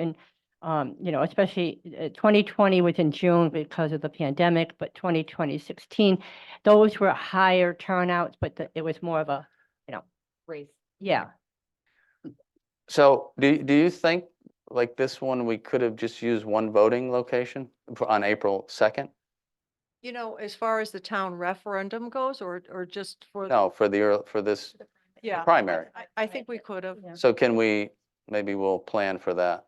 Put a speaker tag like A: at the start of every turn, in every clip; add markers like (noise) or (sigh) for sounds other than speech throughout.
A: and, um, you know, especially uh, 2020 was in June because of the pandemic, but 2020, 16, those were higher turnouts, but the- it was more of a,
B: race.
A: yeah,
C: So do, do you think, like this one, we could have just used one voting location for- on April 2nd?
D: You know, as far as the town referendum goes, or, or just for. the-
C: No, for the, ear- for this,
D: Yeah. I-
C: primary.
D: I, I think we could have.
A: Yeah.
C: so can we, maybe we'll plan for that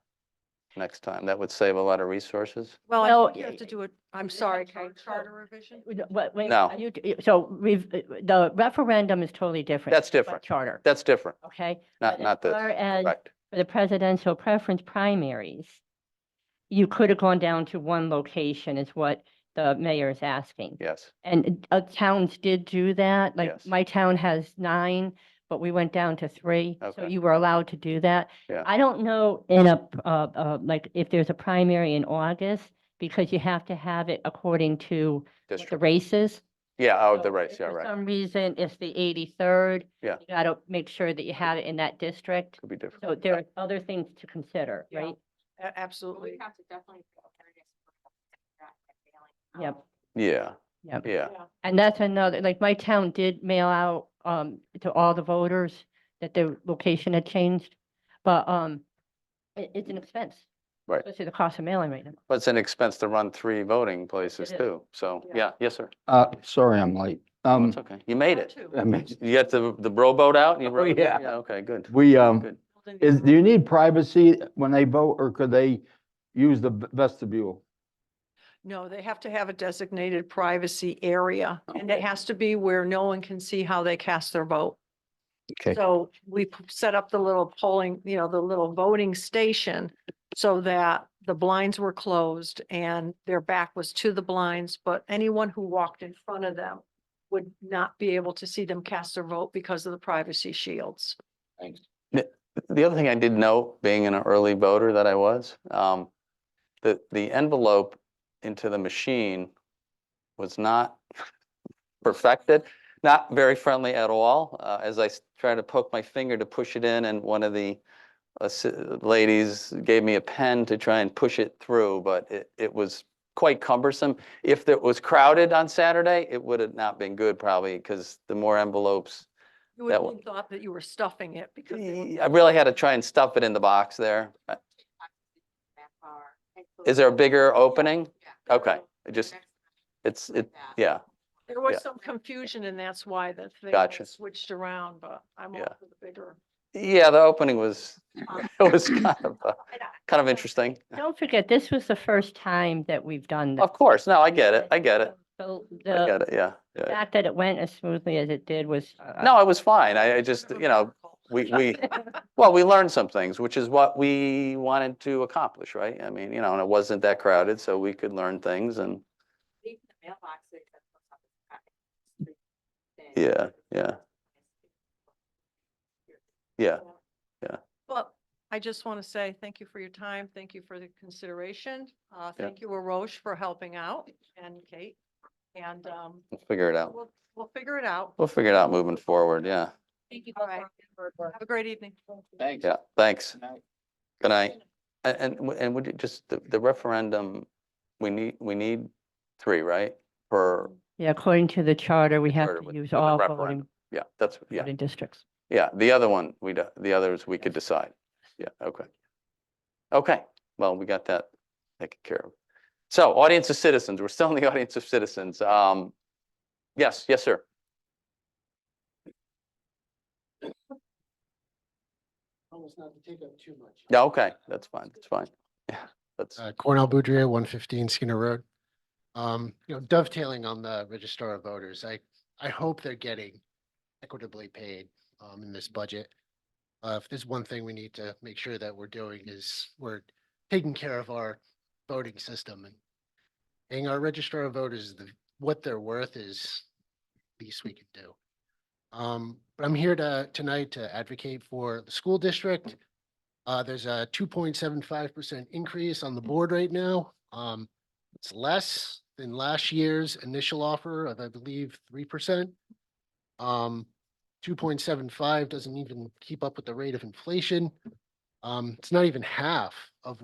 C: next time? That would save a lot of resources.
D: Well,
A: Well,
D: I think you have to do it, I'm
B: Is it
D: sorry,
B: a char-
D: Kate, charter revision?
A: Wait, What, wait,
C: No.
A: are you, so we've, the referendum is totally different.
C: That's
A: but
C: different.
A: Charter,
C: That's different,
A: okay?
C: not, not
A: the
C: this,
A: Whereas
C: correct?
A: for the presidential preference primaries, you could have gone down to one location is what the mayor is asking.
C: Yes,
A: And uh, towns did do that, like
C: Yes.
A: my town has nine, but we went down to three. So
C: Okay.
A: you were allowed to do that.
C: Yeah.
A: I don't know in a, p- uh, uh, like if there's a primary in August, because you have to have it according to what the
C: district.
A: races.
C: Yeah, oh,
A: So
C: the race,
A: if
C: yeah,
A: For
C: right.
A: some reason, it's the eighty-third.
C: Yeah.
A: You gotta make sure that you have it in that district.
C: Could be different.
A: So there are other things to consider,
D: Yeah.
A: right?
D: A-
B: But we
D: Absolutely.
B: have to definitely. go over this for the fact that they only
A: Yep.
B: count.
C: Yeah,
A: Yep.
C: yeah,
A: And that's another, like my town did mail out um to all the voters that their location had changed. But um it it's an expense.
C: Right.
A: Especially the cost of mailing right now.
C: but it's an expense to run three voting places
A: is.
C: too, so,
D: Yeah.
C: yeah, yes, sir.
E: Uh, sorry, I'm late.
C: Oh,
E: Um,
C: It's okay, you made
D: Round
C: it.
D: two.
E: I mean,
C: You got the, the rowboat out? You
E: Oh,
C: rowed it?
E: yeah.
C: Okay, good.
E: we, um,
C: Good.
D: Building the
E: is, do
D: room.
E: you need privacy when they vote or could they use the v- vestibule?
D: No, they have to have a designated privacy area and it
C: Okay.
D: has to be where no one can see how they cast their vote.
E: Okay.
D: So we p- set up the little polling, you know, the little voting station so that the blinds were closed and their back was to the blinds, but anyone who walked in front of them would not be able to see them cast their vote because of the privacy shields.
C: The other thing I did note, being an early voter that I was, um, the, the envelope into the machine was not perfected, not very friendly at all. Uh, as I s- tried to poke my finger to push it in and one of the assi- ladies gave me a pen to try and push it through, but it, it was quite cumbersome. If it was crowded on Saturday, it would have not been good probably because the more envelopes
D: You
C: That
D: would
C: one-
D: have thought that you were stuffing it because they were-
C: I really had to try and stuff it in the box there. Uh,
B: Back bar. And so
C: Is there a
B: it's-
C: bigger
B: yeah,
C: opening?
B: yeah.
C: Okay, I just,
B: Next
C: it's,
B: to
C: it,
B: that.
C: yeah,
D: there
C: Yeah.
D: was some confusion and that's why the thing
C: Gotcha.
D: was switched around, but I'm all
C: Yeah.
D: for the bigger.
C: yeah, the opening was, (laughs)
B: Um,
C: it was kind of, uh,
B: and I-
C: kind of interesting.
A: Don't forget, this was the first time that we've done this.
C: Of course, no, I get it, I get it,
A: So
C: I get
A: the
C: it, yeah. yeah.
A: fact that it went as smoothly as it did was. uh,
C: No, I was fine, I, I just,
D: Bit of a
C: you know,
D: miracle.
C: we, we, well, we learned some things, which is what we wanted to accomplish, right? I mean, you know, and it wasn't that crowded, so we could learn things and,
B: leave the mailboxes at the top of the package. Then-
C: yeah, yeah, yeah.
D: Well, I just want to say thank you for your time. Thank you for the consideration. Uh, thank you, Aroche, for helping out and Kate. And, um,
C: We'll figure it out.
D: we'll, we'll figure it out.
C: We'll figure it out moving forward, yeah,
B: Thank you.
D: All right. Have a great evening.
E: Thanks.
C: yeah, thanks. Good night. And, and, w- and would you just, the, the referendum, we need, we need three, right? Per,
A: Yeah, according to the charter, we have
C: Charter
A: to
C: with- with
A: use
C: the
A: all voting,
C: referendum. yeah, that's, yeah,
A: voting districts.
C: yeah. The other one, we, would the others, we could decide. Yeah, okay. Okay, well, we got that taken care of. So audience of citizens, we're still in the (laughs) audience of citizens. Um, yes, yes, sir.
F: Almost not to take up too much.
C: Yeah, okay, that's fine, that's fine. Yeah, that's,
F: Uh, Cornell Boudreau, one fifteen Skinner Road. Um, you know, dovetailing on the registrar of voters, I, I hope they're getting equitably paid, um, in this budget. Uh, if there's one thing we need to make sure that we're doing is we're taking care of our voting system and paying our registrar of voters, the, what they're worth is least we can do. Um, but I'm here to, tonight to advocate for the school district. Uh, there's a two point seven five percent increase on the board right now. Um, it's less than last year's initial offer of, I believe, three percent. Um, two point seven five doesn't even keep up with the rate of inflation. Um, it's not even half of